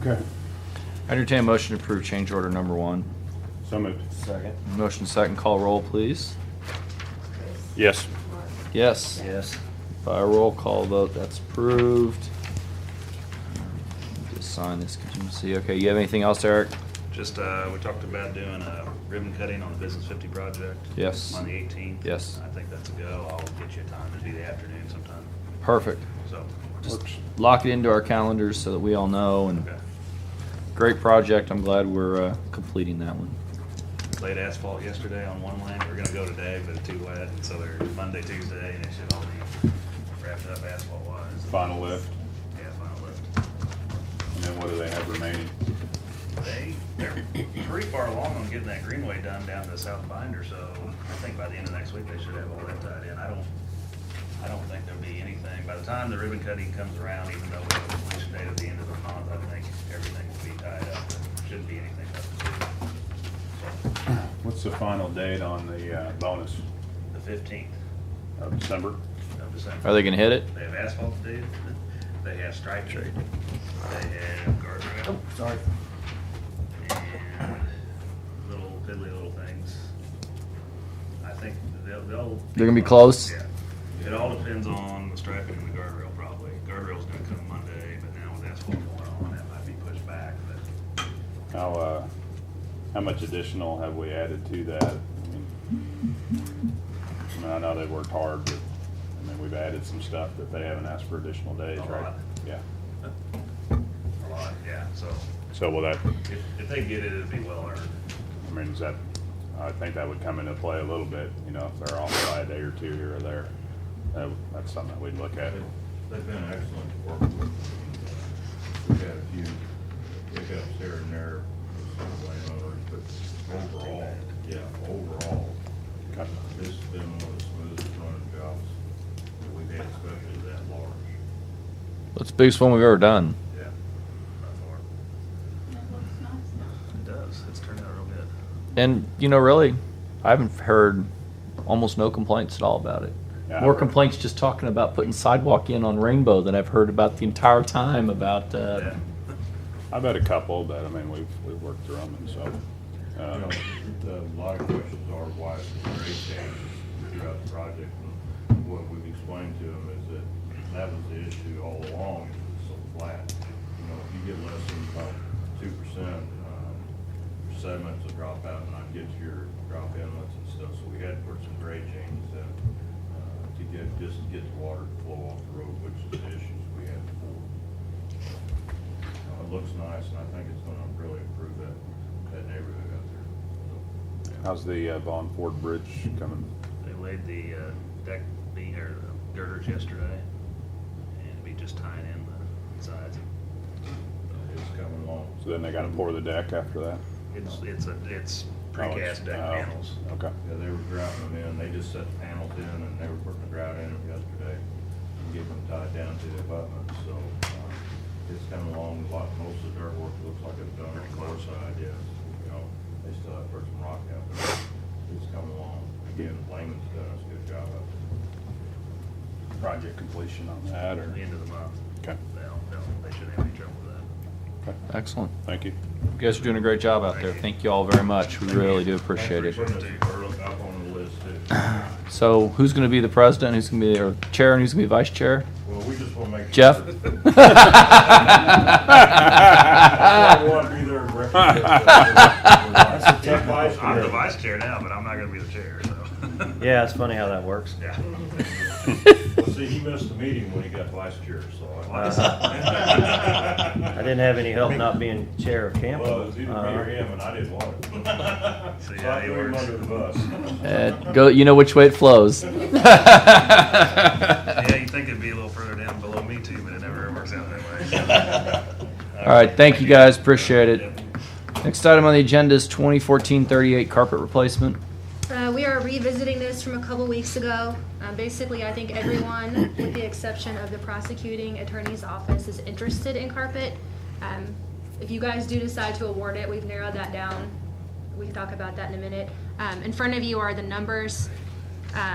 Okay, I entertain a motion to approve change order number one. so moved. Second. Motion second, call roll, please. Yes. Yes. Yes. By roll call vote, that's approved. Just sign this contingency. Okay, you have anything else, Eric? Just, uh, we talked about doing a ribbon cutting on the Business 50 project. Yes. On the 18th. Yes. I think that's a go. I'll get you a time. It'd be the afternoon sometime, Perfect. so. Just Works. lock it into our calendars so that we all know. And okay. great project. I'm glad we're uh, completing that one. Laid asphalt yesterday on one lane. We're gonna go today, but it's too wet, and so they're Monday, Tuesday, and it should all be wrapped up asphalt wise. Final lift, Yeah, final lift. and then what do they have remaining? They, they're pretty far along on getting that greenway done down to South Binder, so I think by the end of next week, they should have all that tied in. I don't, I don't think there'll be anything. By the time the ribbon cutting comes around, even though we have a completion date at the end of the month, I think everything will be tied up. There Shouldn't be anything left. to do. So, What's the final date on the uh, bonus The fifteenth of December? of Are December. they going to hit it? They have asphalt to do, they have stripe trade, they have guardrail, Sorry. and little piddly little things. I think they'll, they'll. They're gonna be close? Yeah. It all depends on the striping and the guardrail probably. Guardrail's gonna come Monday, but now with asphalt going on, that might be pushed back, but How, uh, how much additional have we added to that? I mean, I mean, I know they worked hard, but, I mean, we've added some stuff that they haven't asked for additional days, A right? lot. Yeah, a lot, yeah, so so will that, if, if they get it, it'd be well earned. I mean, is that, I think that would come into play a little bit, you know, if they're off by a day or two here or there. That- That's something that we'd look at. They've been excellent to work with. We've had a few hiccups here and there, some landowners, but overall, yeah, overall, Okay. this has been one of the smoothest running uh, jobs that we've had, especially that large. That's the biggest one we've ever done. Yeah. by far. It does, it's turned out real good. And, you know, really, I haven't heard almost no complaints at all about it. Yeah. More complaints just talking about putting sidewalk in on Rainbow than I've heard about the entire time about, uh, Yeah. I've had a couple, but I mean, we've, we've worked through them and so. um, You know, uh, the- a lot of questions are why the grade changes throughout the project. And What we've explained to them is that that was the issue all along, is it's so flat. You know, if you get less than about two percent, um, your sediments will drop out and not get to your drop inlets and stuff. So we had to put some grade changes in, uh, to get, just to get the water to flow off the road, which is the issues we had before. Uh, It looks nice, and I think it's gonna really improve that, that neighborhood out there. How's the uh, Vaughn Ford Bridge coming? They laid the uh, deck beam, or the girders yesterday, and we just tying in the sides. So It's uh, coming along. So then they gotta pour the deck after that? It's, it's a, it's Oh, it's- precast deck oh, panels. Okay. Yeah, they were grouting them in, they just set the panels in, and they were putting the grout in them yesterday, and getting them tied down to the abutment, so, uh, it's coming along a lot, most of the dirt work looks like it's done on the north side, yes, you know, they still have to put some rock out there, it's coming along, again, Lehman's done us a good job out there. Project completion on that or? The end of the month, Okay, they'll, they'll, they shouldn't have any trouble with that. okay, excellent. thank you. You guys are doing a great job out there. Thank you all very much. We really do appreciate it. Putting us further up on the list, too. So who's going to be the president? Who's going to be the or chair and who's going to be vice chair? Well, we just wanna make sure. Jeff? We wanna be there and represent. That's a I'm the vice chair now, but I'm not gonna be the chair, so. Yeah, it's funny how that works. Yeah. Well, see, he missed the meeting when he got vice chair, so. Uh-huh. I didn't have any help not being chair of camp. Well, it was either me or Uh, him, and I didn't want it. So, So I yeah, it threw him works. under the bus. Uh, go, you know which way it flows. Yeah, you'd think it'd be a little further down below me too, but it never works out that way. All right, thank you guys. Appreciate it. Yep. Next item on the agenda is 2014-38 carpet replacement. Uh, we are revisiting this from a couple weeks ago. Um, basically, I think everyone, with the exception of the prosecuting attorney's office, is interested in carpet. Um, if you guys do decide to award it, we've narrowed that down. We can talk about that in a minute. Um, in front of you are the numbers. Um,